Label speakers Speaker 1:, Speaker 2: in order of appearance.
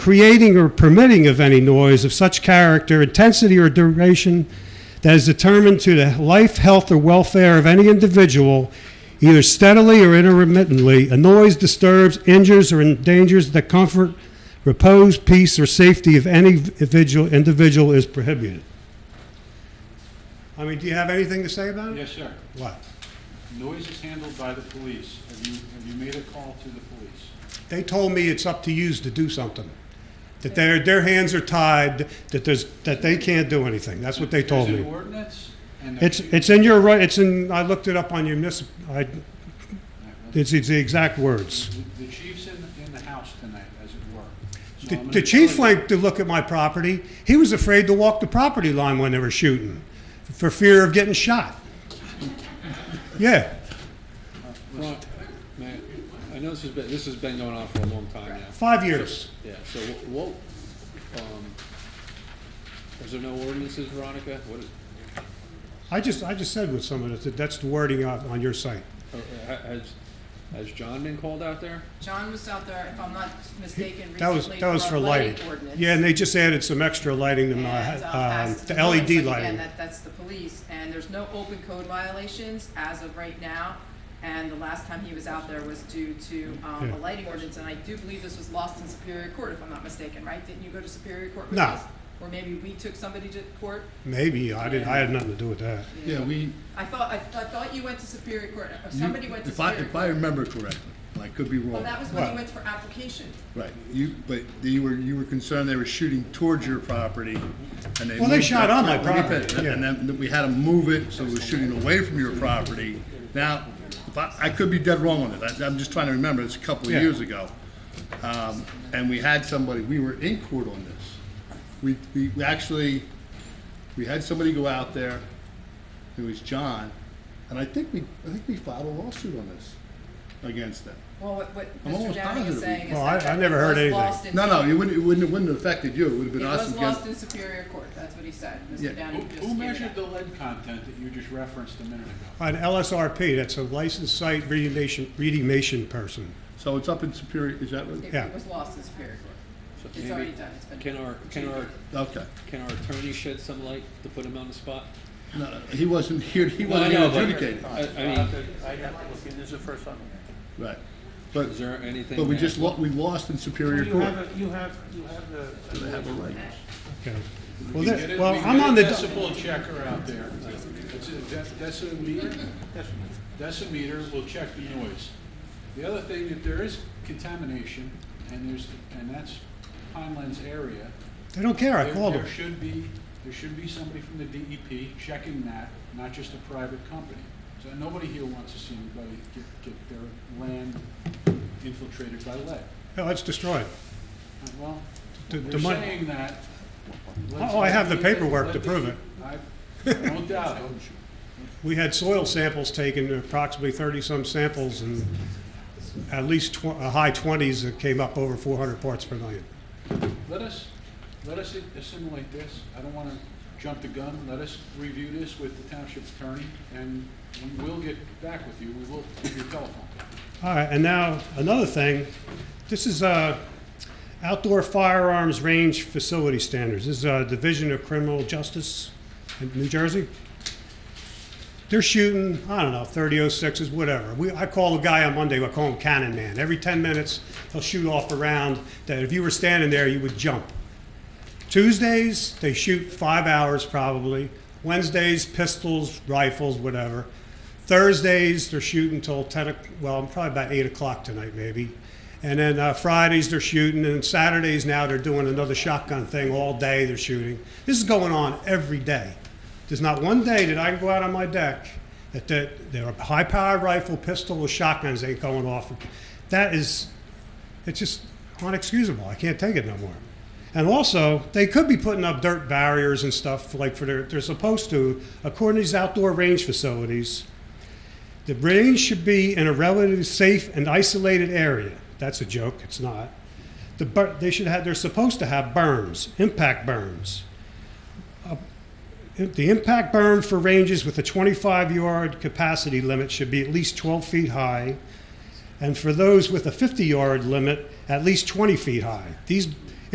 Speaker 1: creating or permitting of any noise of such character, intensity, or duration that is determined to the life, health, or welfare of any individual, either steadily or intermittently. A noise disturbs, injures, or endangers the comfort, repose, peace, or safety of any individual, individual is prohibited. I mean, do you have anything to say about it?
Speaker 2: Yes, sir.
Speaker 1: What?
Speaker 2: Noise is handled by the police. Have you, have you made a call to the police?
Speaker 1: They told me it's up to yous to do something. That their, their hands are tied, that there's, that they can't do anything. That's what they told
Speaker 2: Is it
Speaker 1: me.
Speaker 2: ordinance? And the-
Speaker 1: It's, it's in your right, it's in, I looked it up on your municip, I, it's, it's the exact words.
Speaker 2: The chief's in, in the house tonight, as it were. So
Speaker 1: The,
Speaker 2: I'm gonna
Speaker 1: the chief
Speaker 2: tell you-
Speaker 1: went to look at my property. He was afraid to walk the property line when they were shooting for fear of getting shot. Yeah.
Speaker 3: Well, Mayor, I know this has been, this has been going on for a long time now.
Speaker 1: Five years.
Speaker 3: Yeah, so wh- what, um, is there no ordinances, Veronica? What is,
Speaker 1: I just, I just said with someone, that that's the wording on, on your site.
Speaker 3: or- or ha- has, has John been called out there?
Speaker 4: John was out there, if I'm not mistaken,
Speaker 1: That was,
Speaker 4: recently
Speaker 1: that was
Speaker 4: our
Speaker 1: for lighting.
Speaker 4: ordinance.
Speaker 1: Yeah, and they just added some extra lighting to my,
Speaker 4: And, uh,
Speaker 1: um,
Speaker 4: passed it to
Speaker 1: the
Speaker 4: police.
Speaker 1: LED
Speaker 4: Like, Again,
Speaker 1: lighting.
Speaker 4: that, that's the police, and there's no open code violations as of right now. And the last time he was out there was due to, um,
Speaker 1: Yeah.
Speaker 4: a lighting ordinance, and I do believe this was lost in Superior Court, if I'm not mistaken, right? Didn't you go to Superior Court with
Speaker 1: No.
Speaker 4: this? Or maybe we took somebody to court?
Speaker 1: Maybe, I didn't, I had nothing to do with that.
Speaker 5: Yeah, we,
Speaker 4: I thought, I, I thought you went to Superior Court, or
Speaker 5: you-
Speaker 4: somebody went to
Speaker 5: if I,
Speaker 4: Superior
Speaker 5: if I
Speaker 4: Court.
Speaker 5: remember correctly, and I could be
Speaker 4: Well,
Speaker 5: wrong,
Speaker 4: that was when
Speaker 1: Well-
Speaker 4: you went for application.
Speaker 5: right, you, but you were, you were concerned they were shooting towards your property, and they.
Speaker 1: Well, they
Speaker 5: moved
Speaker 1: shot
Speaker 5: that-
Speaker 1: on my
Speaker 5: Let me
Speaker 1: property,
Speaker 5: finish.
Speaker 1: yeah.
Speaker 5: And then we had to move it, so it was shooting away from your property. Now, if I, I could be dead wrong on it, I, I'm just trying to remember, it's a couple of
Speaker 1: Yeah.
Speaker 5: years ago. Um, and we had somebody, we were in court on this. We, we we actually, we had somebody go out there, it was John, and I think we, I think we filed a lawsuit on this, against them.
Speaker 4: Well, what, what
Speaker 5: I'm
Speaker 4: Mr.
Speaker 5: almost
Speaker 4: Downing
Speaker 5: positive
Speaker 4: is
Speaker 5: we-
Speaker 4: saying is
Speaker 1: Well, I-
Speaker 4: that
Speaker 1: I
Speaker 4: that
Speaker 1: never
Speaker 4: it
Speaker 1: heard
Speaker 4: was
Speaker 1: anything.
Speaker 4: lost in
Speaker 5: No, no, it wouldn't, it wouldn't, it wouldn't have affected you, it would have
Speaker 4: It
Speaker 5: been us
Speaker 4: was lost in
Speaker 5: against.
Speaker 4: Superior Court, that's what he said,
Speaker 5: Yeah.
Speaker 4: Mr.
Speaker 2: Who,
Speaker 4: Downing just
Speaker 2: who
Speaker 4: gave
Speaker 2: measured
Speaker 4: it
Speaker 2: the
Speaker 4: up.
Speaker 2: lead content that you just referenced a minute ago?
Speaker 1: An LSRP, that's a licensed site remediation, remediation person.
Speaker 5: So it's up in Superior, is that what,
Speaker 4: It-
Speaker 1: yeah.
Speaker 4: It was lost in Superior Court,
Speaker 3: So
Speaker 4: it's
Speaker 3: maybe-
Speaker 4: already done, it's been.
Speaker 3: Can our, can our,
Speaker 5: okay.
Speaker 3: can our attorney shed some light to put him on the spot?
Speaker 5: No, no, he wasn't here, he
Speaker 3: Well, I
Speaker 5: wasn't here
Speaker 3: know, but-
Speaker 5: adjudicated,
Speaker 3: I, I mean,
Speaker 6: I'd have to look, in. this is the first time.
Speaker 5: right. But,
Speaker 3: is there anything?
Speaker 5: but we
Speaker 3: that-
Speaker 5: just, lo- we lost in Superior
Speaker 6: You
Speaker 5: Court.
Speaker 6: have, a- you have, you have the.
Speaker 5: They have a right.
Speaker 1: Okay. Well,
Speaker 2: We
Speaker 1: there-
Speaker 2: get it-
Speaker 1: Well,
Speaker 2: we
Speaker 1: I'm
Speaker 2: get
Speaker 1: on
Speaker 2: a
Speaker 1: the,
Speaker 2: Decibel checker out there. It's a dec- decimeter, decimeter will check the noise. The other thing, if there is contamination, and there's, and that's Pineland's area,
Speaker 1: they don't care, I
Speaker 2: there-
Speaker 1: called them.
Speaker 2: There should be, there should be somebody from the DEP checking that, not just a private company. So nobody here wants to see anybody get, get their land infiltrated by lead.
Speaker 1: No, it's destroyed.
Speaker 2: Well,
Speaker 1: The- the
Speaker 2: we're
Speaker 1: mon-
Speaker 2: saying that.
Speaker 1: Oh, I have the paperwork to prove it.
Speaker 2: I, no doubt.
Speaker 1: We had soil samples taken, approximately 30-some samples, and at least tw- a high 20s that came up over 400 parts per million.
Speaker 2: Let us, let us assimilate this. I don't want to jump the gun. Let us review this with the township attorney, and we will get back with you. We will give you a telephone.
Speaker 1: All right, and now, another thing, this is uh, outdoor firearms range facility standards. This is a Division of Criminal Justice in New Jersey. They're shooting, I don't know, 30.06s, whatever. We, I call a guy on Monday, I call him Cannon Man. Every 10 minutes, he'll shoot off a round that if you were standing there, you would jump. Tuesdays, they shoot five hours probably. Wednesdays, pistols, rifles, whatever. Thursdays, they're shooting till 10, o- well, probably about 8 o'clock tonight, maybe. And then uh, Fridays, they're shooting. And Saturdays, now they're doing another shotgun thing all day, they're shooting. This is going on every day. There's not one day that I can go out on my deck that the, there are high power rifle, pistol, or shotguns ain't going off. That is, it's just unexcusable. I can't take it no more. And also, they could be putting up dirt barriers and stuff like for their, they're supposed to, according to these outdoor range facilities. The range should be in a relatively safe and isolated area. That's a joke, it's not. The bur- they should have, they're supposed to have berms, impact berms. Uh, The impact berm for ranges with a 25 yard capacity limit should be at least 12 feet high and for those with a 50 yard limit, at least 20 feet high. These